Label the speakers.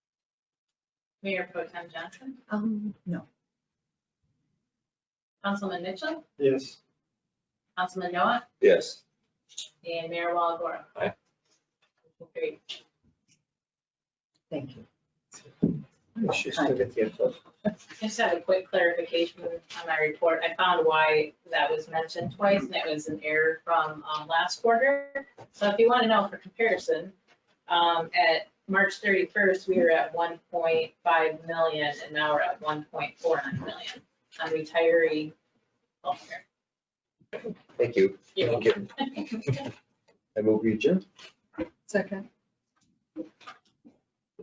Speaker 1: Mayor Pro Tem Johnson,
Speaker 2: Um, no.
Speaker 1: Councilman Mitchell,
Speaker 3: Yes.
Speaker 1: Councilman Noah,
Speaker 4: Yes.
Speaker 1: and Mayor Walagora.
Speaker 4: Aye.
Speaker 1: Motion carried.
Speaker 2: Thank you.
Speaker 3: She's still at the info.
Speaker 1: I Just had a quick clarification on my report. I found why that was mentioned twice, and it was an error from um, last quarter. So if you want to know for comparison, um, at March 31st, we were at 1.5 million, and now we're at 1.49 million Oh, on retiree healthcare.
Speaker 4: Thank you.
Speaker 1: You're welcome.
Speaker 4: I move we adjourn.
Speaker 2: Second.